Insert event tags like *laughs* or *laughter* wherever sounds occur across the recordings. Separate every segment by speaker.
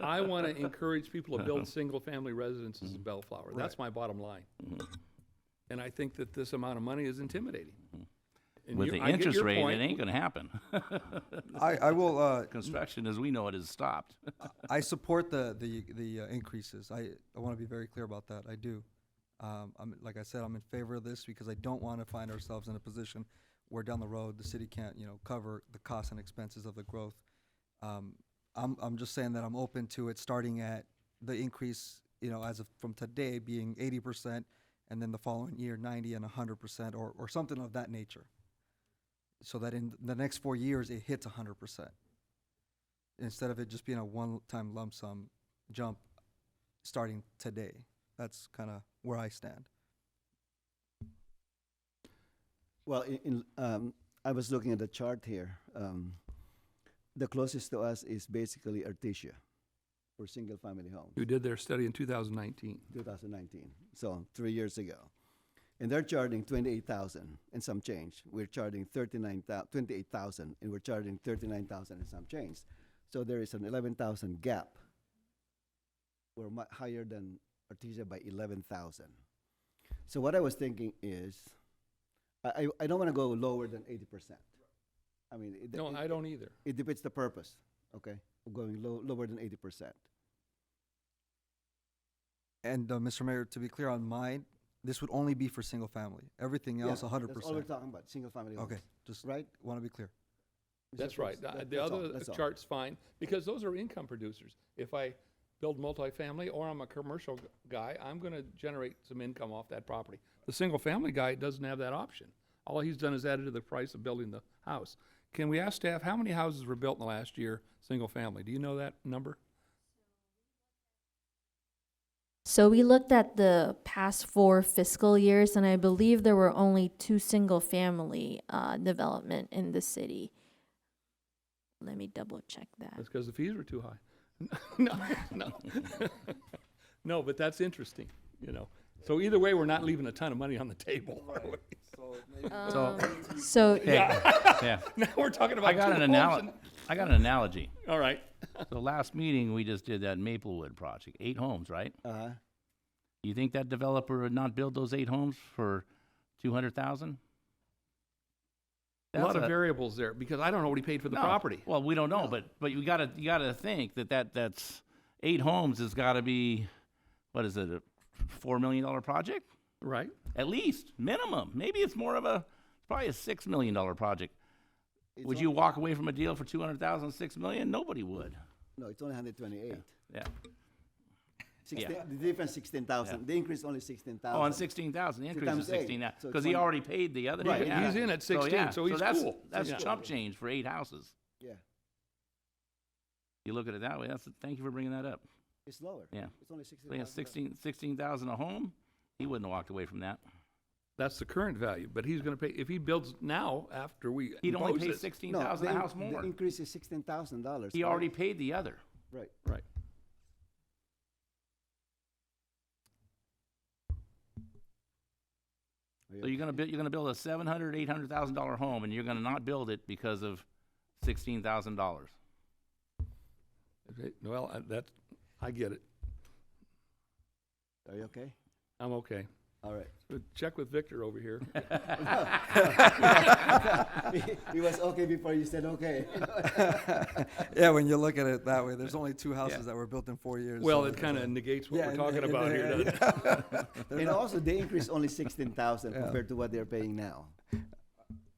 Speaker 1: I
Speaker 2: *laughs*
Speaker 1: want to encourage people to build single-family residences
Speaker 2: Mm-hmm.
Speaker 1: in Bellflower. That's my bottom line. And I think that this amount of money is intimidating. And
Speaker 2: Mm-hmm. With
Speaker 1: you-
Speaker 2: the
Speaker 1: I get
Speaker 2: interest
Speaker 1: your
Speaker 2: rate, it
Speaker 1: point.
Speaker 2: ain't gonna happen. *laughs*
Speaker 3: I, I will, uh,
Speaker 2: Construction, as we know it,
Speaker 1: *laughs*
Speaker 2: is stopped.
Speaker 3: I support the, the, the uh, increases. I, I want to be very clear about that. I do. Um, I'm, like I said, I'm in favor of this because I don't want to find ourselves in a position where down the road, the city can't, you know, cover the costs and expenses of the growth. Um, I'm, I'm just saying that I'm open to it starting at the increase, you know, as of from today being eighty percent and then the following year ninety and hundred percent or, or something of that nature. So that in the next four years, it hits hundred percent instead of it just being a one-time lump sum jump starting today. That's kind of where I stand.
Speaker 4: Well, in, in, um, I was looking at the chart here. Um, the closest to us is basically Artesia for single family home,
Speaker 1: Who did their study in 2019.
Speaker 4: 2019. So three years ago. And they're charging 28,000 and some change. We're charging 39,000, 28,000 and we're charging 39,000 and some change. So there is an 11,000 gap. We're mu- higher than Artesia by 11,000. So what I was thinking is, I, I- I don't want to go lower than 80%. I mean, it,
Speaker 1: No,
Speaker 4: it-
Speaker 1: I don't either.
Speaker 4: it defeats the purpose, okay, of going low, lower than 80%.
Speaker 3: And uh, Mr. Mayor, to be clear on mine, this would only be for single family. Everything
Speaker 4: Yeah,
Speaker 3: else, hundred
Speaker 4: That's all we're
Speaker 3: percent.
Speaker 4: talking about, single family homes.
Speaker 3: Okay, just
Speaker 4: Right?
Speaker 3: want to be clear.
Speaker 4: Mr.
Speaker 1: That's right.
Speaker 4: Cruz?
Speaker 1: Uh,
Speaker 4: That-
Speaker 1: The
Speaker 4: that's all,
Speaker 1: other
Speaker 4: that's all.
Speaker 1: chart's fine, because those are income producers. If I build multifamily or I'm a commercial g- guy, I'm gonna generate some income off that property. The single-family guy doesn't have that option. All he's done is added to the price of building the house. Can we ask staff, how many houses were built in the last year, single-family? Do you know that number?
Speaker 5: So we looked at the past four fiscal years, and I believe there were only two single-family uh, development in the city. Let me double-check that.
Speaker 1: That's because the fees were too high. *laughs* No, no. *laughs* No, but that's interesting, you know. So either way, we're not leaving a ton of money on the table, are we? *laughs*
Speaker 2: So,
Speaker 5: So
Speaker 2: yeah,
Speaker 1: Now we're talking about
Speaker 2: I got
Speaker 1: two homes
Speaker 2: an analogy, I got an analogy.
Speaker 1: and- All right.
Speaker 2: So last meeting, we just did that Maplewood project, eight homes, right?
Speaker 4: Uh-huh.
Speaker 2: You think that developer would not build those eight homes for two hundred thousand?
Speaker 1: a lot of variables there because I don't know what he paid for the property.
Speaker 2: Well, we don't know, but, but you gotta, you gotta think that that, that's, eight homes has gotta be, what is it, a four million dollar project?
Speaker 1: Right?
Speaker 2: At least, minimum. Maybe it's more of a, probably a six million dollar project.
Speaker 4: It's
Speaker 2: Would
Speaker 4: on-
Speaker 2: you walk away from a deal for two hundred thousand, six million? Nobody would.
Speaker 4: No, it's only 128.
Speaker 2: Yeah.
Speaker 4: 16, The difference 16,000. The increase is only 16,000.
Speaker 2: Oh, on sixteen thousand, increase of
Speaker 4: times eight,
Speaker 2: sixteen,
Speaker 4: so
Speaker 2: because he
Speaker 4: 20.
Speaker 2: already paid the other.
Speaker 4: Right,
Speaker 2: half.
Speaker 1: he's in at 16,
Speaker 2: yeah,
Speaker 1: so he's
Speaker 2: that's-
Speaker 1: cool.
Speaker 2: That's
Speaker 1: Yeah.
Speaker 2: chump change for eight houses.
Speaker 4: Yeah,
Speaker 2: You look at it that way, that's, thank you for bringing that up.
Speaker 4: it's lower.
Speaker 2: Yeah.
Speaker 4: It's only
Speaker 2: So he
Speaker 4: 16,000.
Speaker 2: has sixteen, sixteen thousand a home, he wouldn't have walked away from that.
Speaker 1: That's the current value, but he's going to pay if he builds now after we.
Speaker 2: He'd only
Speaker 1: impose
Speaker 2: pay
Speaker 1: this.
Speaker 2: sixteen
Speaker 4: No,
Speaker 2: thousand a
Speaker 4: the-
Speaker 2: house more.
Speaker 4: The increase is $16,000.
Speaker 2: He
Speaker 4: right?
Speaker 2: already paid the other.
Speaker 4: Right.
Speaker 1: Right.
Speaker 2: So you're gonna build, you're gonna build a seven hundred, eight hundred thousand dollar home, and you're gonna not build it because of sixteen thousand dollars.
Speaker 1: Okay, Well, I- that's I get it.
Speaker 4: Are you okay?
Speaker 1: I'm okay.
Speaker 4: All
Speaker 2: *laughs*
Speaker 4: right. *laughs*
Speaker 1: But check with Victor over here.
Speaker 4: He was okay before you said okay. *laughs*
Speaker 3: Yeah, when you look at it that way, there's only two houses that were built in four years.
Speaker 1: Well,
Speaker 3: so
Speaker 1: it
Speaker 3: *laughs*
Speaker 1: kind of negates what
Speaker 3: Yeah,
Speaker 1: we're
Speaker 3: it-
Speaker 1: talking
Speaker 3: it-
Speaker 1: about here.
Speaker 3: yeah,
Speaker 1: doesn't it?
Speaker 4: and also, the increase only 16,000
Speaker 3: Yeah.
Speaker 4: compared to what they're paying now.
Speaker 3: *laughs*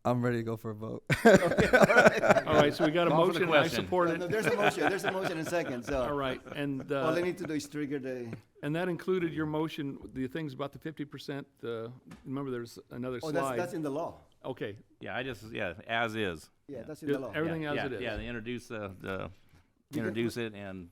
Speaker 3: I'm ready to go for a vote.
Speaker 1: All right, so we got a
Speaker 2: Call for the
Speaker 1: motion. and I
Speaker 2: question.
Speaker 1: support
Speaker 4: No, *laughs*
Speaker 1: it.
Speaker 4: there's a motion. There's a motion in second.
Speaker 2: *laughs*
Speaker 4: So
Speaker 1: All right, and uh,
Speaker 4: all I need to do is trigger the.
Speaker 1: and that included your motion. The things about the fifty percent. Uh, remember, there's another
Speaker 4: Oh,
Speaker 1: slide.
Speaker 4: that's, that's in the law.
Speaker 1: okay,
Speaker 2: Yeah, I just, yeah, as is.
Speaker 4: Yeah, that's in
Speaker 1: Yeah,
Speaker 4: the law.
Speaker 1: every- Everything
Speaker 2: Yeah,
Speaker 1: as
Speaker 2: yeah,
Speaker 1: it is.
Speaker 2: Yeah, they introduce, uh, the, introduce it and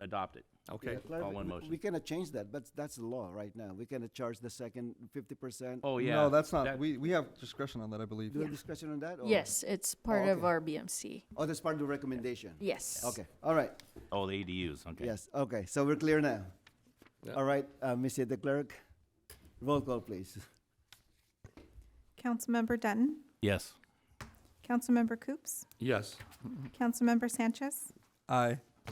Speaker 2: adopt it.
Speaker 1: okay.
Speaker 4: Yeah, clarif-
Speaker 2: all one
Speaker 4: we-
Speaker 2: motion.
Speaker 4: We cannot change that, but that's the law right now. We cannot charge the second fifty percent.
Speaker 2: Oh, yeah.
Speaker 3: No, that's not,
Speaker 2: that-
Speaker 3: we, we have discretion on that, I believe.
Speaker 4: Do you have discussion on that? or-
Speaker 5: yes, it's part of
Speaker 4: okay.
Speaker 5: our BMC.
Speaker 4: Oh, that's part of the recommendation?
Speaker 5: Yes.
Speaker 4: Okay, all right,
Speaker 2: Oh, the ADUs, okay.
Speaker 4: yes, okay, so we're clear now.
Speaker 1: Yeah.
Speaker 4: All right, uh, Missy, the clerk, roll call, please. *laughs*
Speaker 6: Councilmember Dutton,
Speaker 2: Yes.
Speaker 6: Councilmember Coops,
Speaker 1: Yes.
Speaker 6: Councilmember Sanchez,
Speaker 3: Aye.